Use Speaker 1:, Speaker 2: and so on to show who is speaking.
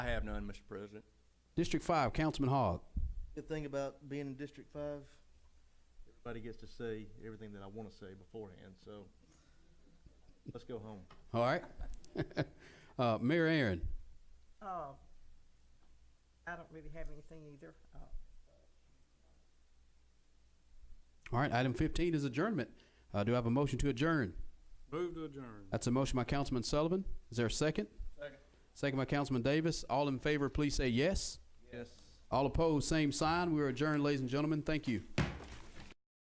Speaker 1: have none, Mr. President.
Speaker 2: District five, Councilman Hogg.
Speaker 3: Good thing about being in District Five,
Speaker 4: Everybody gets to say everything that I want to say beforehand, so let's go home.
Speaker 2: All right. Uh, Mayor Aaron.
Speaker 5: Uh, I don't really have anything either. Uh,
Speaker 2: All right, item fifteen is adjournment. Uh, do I have a motion to adjourn?
Speaker 6: Move to adjourn.
Speaker 2: That's a motion by Councilman Sullivan. Is there a second?
Speaker 4: Second.
Speaker 2: Second by Councilman Davis. All in favor, please say yes.
Speaker 4: Yes.
Speaker 2: All opposed, same sign. We are adjourned, ladies and gentlemen. Thank you.